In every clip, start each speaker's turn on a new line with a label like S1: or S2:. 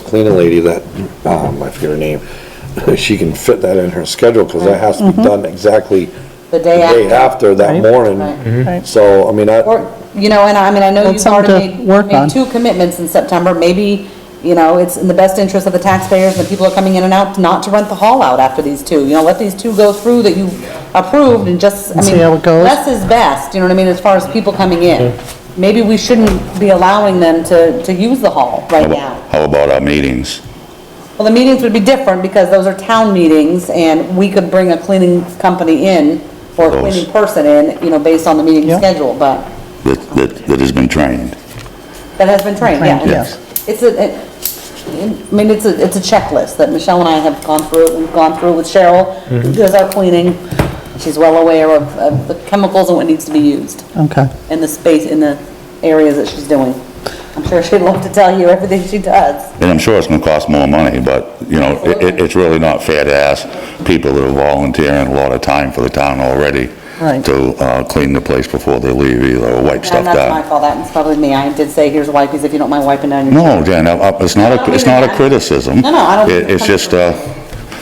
S1: cleaning lady that, um, I forget her name, she can fit that in her schedule, because that has to be done exactly
S2: The
S1: the
S2: day
S1: day
S2: after.
S1: after, that
S3: Mm-hmm. Right.
S1: morning.
S2: Right.
S3: Right.
S1: So, I mean, I,
S2: Or, you know, and I mean, I know
S3: That's
S2: you've already
S3: something to
S2: made,
S3: work on.
S2: made two commitments in September, maybe, you know, it's in the best interest of the taxpayers and the people who are coming in and out, not to rent the hall out after these two, you know, let these two go through that you approved and just, I
S3: See
S2: mean,
S3: how it goes.
S2: less is best, you know what I mean, as far as people coming in. Maybe we shouldn't be allowing them to, to use the hall right now.
S4: How about our meetings?
S2: Well, the meetings would be different because those are town meetings and we could bring a cleaning company in or a
S4: Those.
S2: cleaning person in, you know, based on the meeting
S3: Yeah.
S2: schedule, but
S4: that, that, that has been trained.
S2: that has been trained, yeah.
S3: Trained, yes.
S2: It's a, it- I mean, it's a, it's a checklist that Michelle and I have gone through, we've gone through with Cheryl,
S5: Mm-hmm.
S2: who does our cleaning. She's well aware of, of the chemicals and what needs to be used
S3: Okay.
S2: and the space, in the areas that she's doing. I'm sure she'd love to tell you everything she does.
S4: And I'm sure it's gonna cost more money, but, you know, it, it- it's really not fair to ask people that are volunteering a lot of time for the town already
S3: Right.
S4: to, uh, clean the place before they leave either, or wipe
S2: And
S4: stuff
S2: that's my
S4: down.
S2: fault, that's probably me. I did say, here's wipes if you don't mind wiping down your
S4: No, Jen, I- I- it's not, a it's not a criticism.
S2: No, no, I don't-
S4: It- It's just, uh,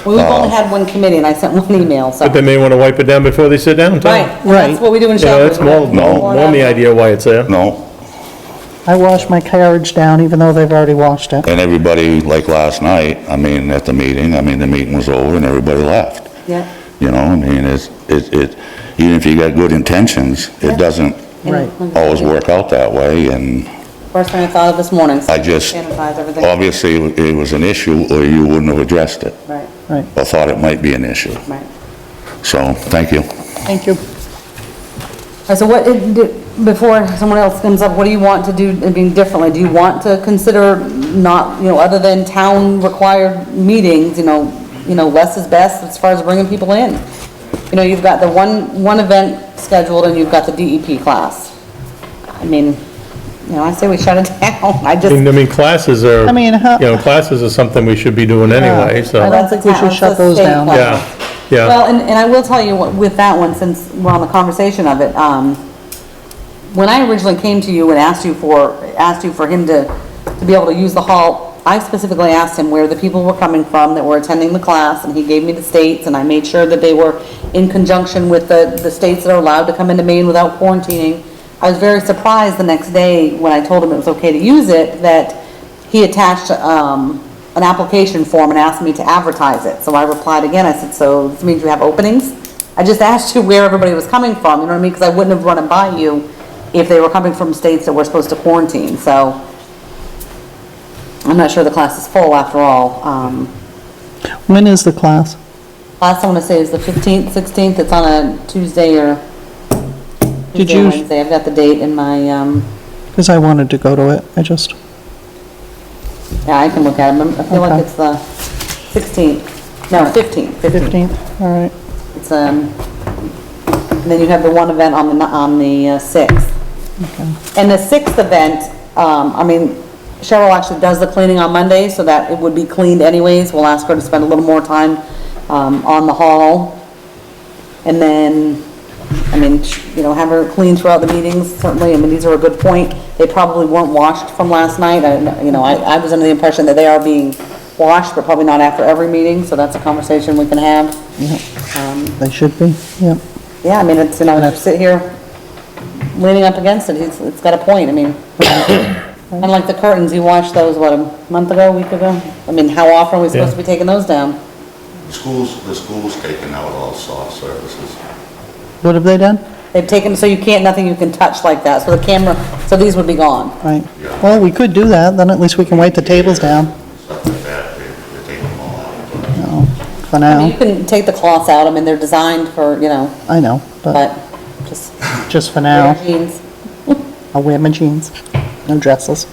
S2: Well, We've only had one committee, and I sent one email, so.
S5: But they may want to wipe it down before they sit down, too.
S2: Right, and that's
S3: Right.
S2: what we do in
S5: You know,
S2: Shelby.
S5: that's more,
S4: No.
S5: more the idea why it's there.
S4: no,
S3: I wash my carriage down even though they've already washed it.
S4: and everybody, like last night, I mean, at the meeting, I mean, the meeting was over and everybody left.
S2: Yeah,
S4: You know, I mean, it's, it, it, even if you got good intentions, it doesn't
S3: Right.
S4: always work out that way, and
S2: first thing I thought of this morning. so
S4: I just,
S2: Sanitize everything.
S4: obviously, it was an issue, or you wouldn't have addressed it,
S2: Right,
S3: Right,
S4: or thought it might be an issue.
S2: right.
S4: So, thank you.
S3: thank you.
S2: All right, So what, it- do- before someone else comes up, what do you want to do, I mean, differently? Do you want to consider not, you know, other than town-required meetings, you know, you know, less is best as far as bringing people in? You know, you've got the one, one event scheduled, and you've got the DEP class. I mean, you know, I say we shut it down, I
S5: I
S2: just.
S5: mean, I mean, classes are,
S3: I
S5: you
S3: mean, how-
S5: know, classes are something we should be doing anyway,
S3: I
S5: so,
S3: don't think we should shut those down.
S5: yeah, yeah.
S2: Well, and, and I will tell you what- with that one, since we're on the conversation of it, um, when I originally came to you and asked you for, asked you for him to, to be able to use the hall, I specifically asked him where the people were coming from that were attending the class, and he gave me the states, and I made sure that they were in conjunction with the, the states that are allowed to come into Maine without quarantining. I was very surprised the next day when I told him it was okay to use it, that he attached, um, an application form and asked me to advertise it. So I replied again, I said, so this means you have openings? I just asked you where everybody was coming from, you know what I mean? Because I wouldn't have run it by you if they were coming from states that were supposed to quarantine, so. I'm not sure the class is full after all. Um,
S3: When is the class?
S2: last I wanna say is the fifteenth, sixteenth, it's on a Tuesday or
S3: Did
S2: Tuesday, or
S3: you-
S2: Wednesday. I've got the date in my, um,
S3: Because I wanted to go to it, I just,
S2: yeah, I can look at it. I feel like
S3: Okay.
S2: it's the sixteenth, no, fifteenth, fifteenth.
S3: 15th, all right.
S2: It's, um, and then you have the one event on the, ni- on the uh, sixth. And the sixth event, um, I mean, Cheryl actually does the cleaning on Monday, so that it would be cleaned anyways. We'll ask her to spend a little more time, um, on the hall. And then, I mean, sh- you know, have her clean throughout the meetings, certainly, I mean, these are a good point. They probably weren't washed from last night, I, don't know, you know, I, I was under the impression that they are being washed, but probably not after every meeting, so that's a conversation we can have.
S3: They should be, yep.
S2: Yeah, I mean, it's, you know, to sit here leaning up against it, it's, it's got a point, I mean. Unlike the curtains, you watched those, what, a month ago, a week ago? I mean, how often are we supposed to be taking those down?
S4: Schools, the school's taking out all soft services.
S3: What have they done?
S2: They've taken, so you can't, nothing you can touch like that, so the camera, so these would be gone.
S3: Right. Well, we could do that, then at least we can wipe the tables down. No, For
S2: I mean, you
S3: now,
S2: can take the cloths out, I mean, they're designed for, you know,
S3: I know, but
S2: but just
S3: just for
S2: wear
S3: now,
S2: jeans.
S3: I'll wear my jeans, no dresses.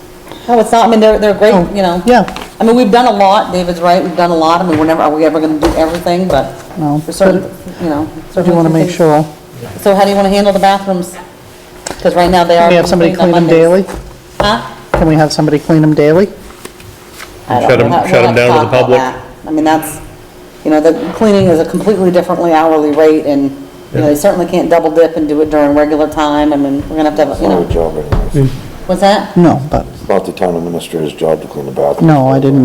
S2: No, it's not, I mean, they're, they're great,
S3: Oh,
S2: you know.
S3: Yeah,
S2: I mean, we've done a lot, David's right, we've done a lot, I mean, we're never, are we ever gonna do everything, but
S3: No,
S2: for certain, you know.
S3: if you
S2: certainly
S3: want
S2: some
S3: to make
S2: things-
S3: sure.
S2: So how do you want to handle the bathrooms? Because right now they are.
S3: Can we have somebody
S2: being cleaned
S3: clean
S2: on
S3: them
S2: Mondays.
S3: daily?
S2: Huh?
S3: Can we have somebody clean them daily?
S2: I don't
S5: Shut
S2: know.
S5: 'em-
S2: We'll have-
S5: shut 'em
S2: we'll have
S5: down to the
S2: talk about
S5: public.
S2: that. I mean, that's, you know, the cleaning is a completely differently hourly rate and, you know, they certainly can't double dip and do it during regular time. I mean, we're gonna have to have, you
S1: not
S2: know,
S1: a job, anyway.
S2: what's that?
S3: No, but,
S1: It's not the town administrator's job to clean the bathroom.
S3: no, I didn't